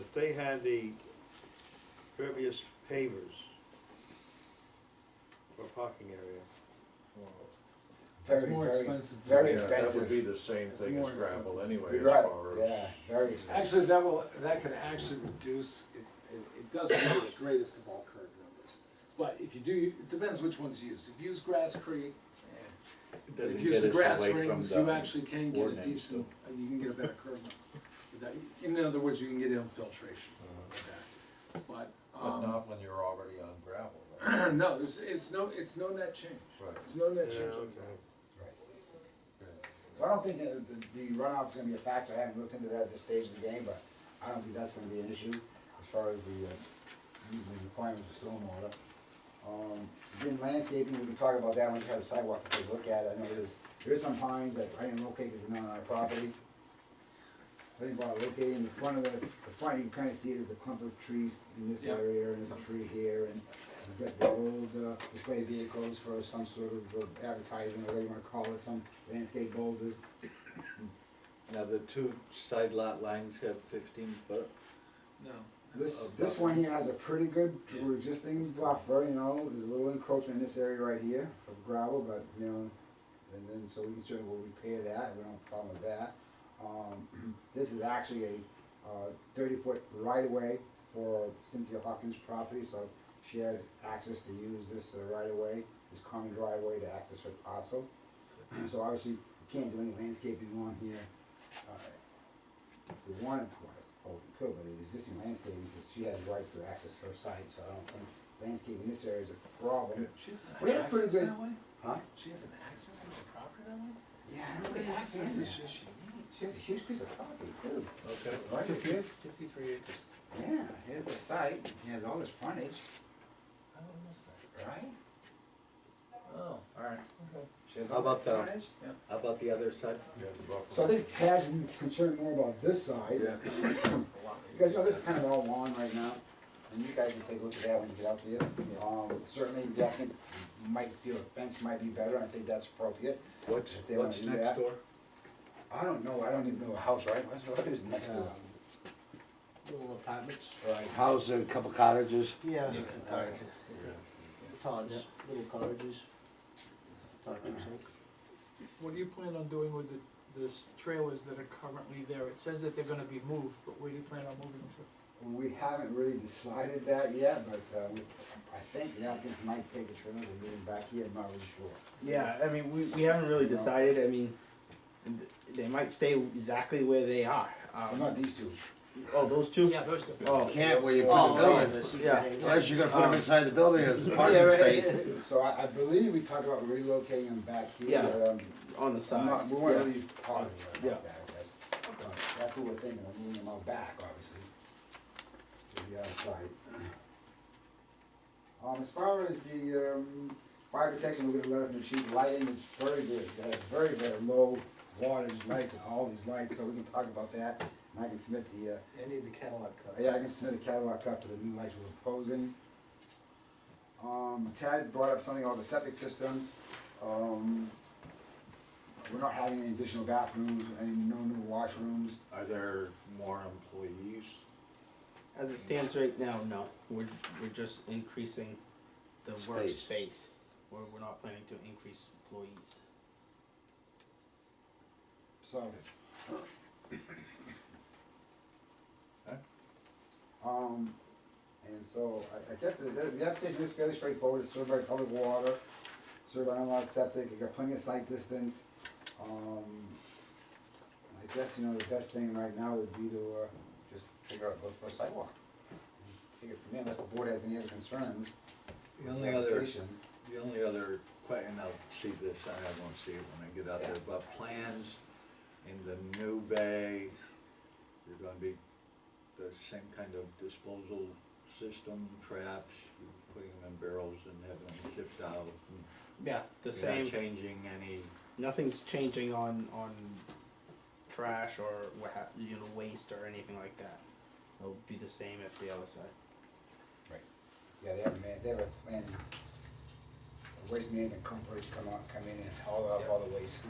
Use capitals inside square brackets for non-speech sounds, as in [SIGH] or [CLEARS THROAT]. if they had the previous pavers for parking area, Very, It's more very- expensive. Very Yeah, That would expensive. be the same It's thing more as gravel expensive. anyway, as Right, far as. yeah, very expensive. Actually, that will, that can actually reduce, it, it, it doesn't have the greatest of all curve numbers. But if you do, it depends which ones you use. If you use Grass Creek, eh, It if doesn't you use get the us grass away from rings, the you actually can get a ordinance, decent, uh, you can get a better curve number. with that. In other words, you can get infiltration with that. But, But um, not when you're already on gravel, right? [CLEARS THROAT] no, it's, it's no, it's no net change. Right. It's no net Yeah, change. okay. So I don't think that the- the runoff's gonna be a factor, I haven't looked into that at this stage of the game, but I don't think that's gonna be an issue as far as the, uh, the requirements of stormwater. Um, again, landscaping, we can talk about that when we have a sidewalk to take a look at, I know there's, there is some pines that I didn't locate because they're not on our property. I didn't bother locating, the front of the, the front, you can kinda see there's a clump of trees in this Yeah. area, and there's a tree here, and it's got the old, uh, display vehicles for some sort of uh, advertising, or whatever you wanna call it, some landscape boulders. Now, the two side lot lines have fifteen foot. No. This, this one here has a pretty good dr- existing buffer, you know, there's a little encroachment in this area right here of gravel, but, you know, and then, so we can certainly will repair that, we don't have a problem with that. Um, [CLEARS THROAT] this is actually a, uh, thirty-foot right-of-way for Cynthia Hawkins' property, so she has access to use this uh, right-of-way, this common driveway to access her parcel. [CLEARS THROAT] So obviously, we can't do any landscaping on here, uh, if they wanted to, I suppose we could, but the existing landscaping, because she has rights to access her site, so I don't think landscaping in this area is a problem. She We doesn't have have pretty access good- that way? Huh? She has an access into the property that way? Yeah, I How don't many think access is, accesses does she need? she has a huge piece of property too. Okay. Right, it is, Fifty-three acres. yeah, here's the site, it has all this frontage, I don't know right? that. Oh, Alright. okay. She has How all about this the- frontage. How about the other side? You have the buffer. So I think Tad's concerned more about this side. Because, you know, this is kind of all lawn right now, and you guys can take a look at that when you get out there. Um, certainly, yeah, I think might feel a fence might be better, I think that's appropriate. What's, If they wanna what's do next that. door? I don't know, I don't even know a house, right? What's- What is next to it? Little apartments. Right. House and couple cottages. Yeah. Alright. Todd's, little cottages. Todd keeps saying. What do you plan on doing with the, this trailers that are currently there? It says that they're gonna be moved, but where do you plan on moving them to? We haven't really decided that yet, but, uh, we- I think the applicants might take a trip and move them back here, I'm not really sure. Yeah, I mean, we, we haven't really decided. I mean, th- they might stay exactly where they are. Oh, Um, Not these two. oh, those two? Yeah, those two. Oh, Can't where you put Oh, the oh, building. Um, this, Yeah. Unless you're gonna put them inside the building as a parking right. space. So I, I believe we talked about relocating them back here. Yeah. um, on the side. not- We Yeah. weren't really talking Yeah. about that, I guess. Uh, That's what we're thinking, of moving them out back, obviously. To the outside. Um, as far as the, um, fire protection, we're gonna let them achieve lighting, it's very good, it has very, very low wattage lights, all these lights, so we can talk about that. And I can submit the, uh, I need the catalog cuts. yeah, I can submit a catalog cut for the new lights we're proposing. Um, Tad brought up something about the septic system. Um, we're not having any additional bathrooms, any no new washrooms. Are there more employees? As it stands right now, no. We're, we're just increasing the Space. workspace. We're, we're not planning to increase employees. So. Um, and so, I, I guess the, the the application is fairly straightforward, it's served by public water, served by unlocked septic, you got plenty of site distance. Um, I guess, you know, the best thing right now would be to, uh, just figure out, look for a sidewalk. Figure from there, unless the board has any other concerns. The with only other, application. the only other, que- and I'll see this, I won't see it when I get out there, but plans in the new bay, you're gonna be the same kind of disposal system, traps, you're putting them in barrels and having them shipped out. and Yeah, the you're not same. Changing any, Nothing's changing on on trash or what ha- you know waste or anything like that. It'll be the same as the other side. Yeah, they have a man, they have a plan, a waste management company to come out, come in and haul off all the waste.